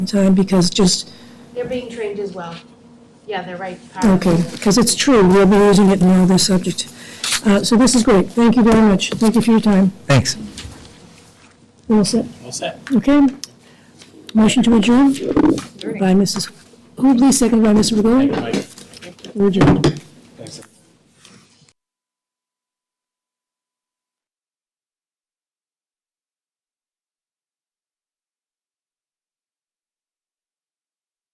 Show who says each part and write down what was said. Speaker 1: in time, because just,
Speaker 2: They're being trained as well. Yeah, they're right. Power
Speaker 1: okay,
Speaker 2: tools.
Speaker 1: because it's true, we'll be using it in another subject. Uh, So this is great, thank you very much, thank you for your time.
Speaker 3: Thanks.
Speaker 1: We're all set,
Speaker 4: All set.
Speaker 1: okay? Motion to adjourn by Mrs. Hoobley, seconded by Mr.
Speaker 4: Thank
Speaker 1: Begoli.
Speaker 4: you, Mike.
Speaker 1: We're adjourned.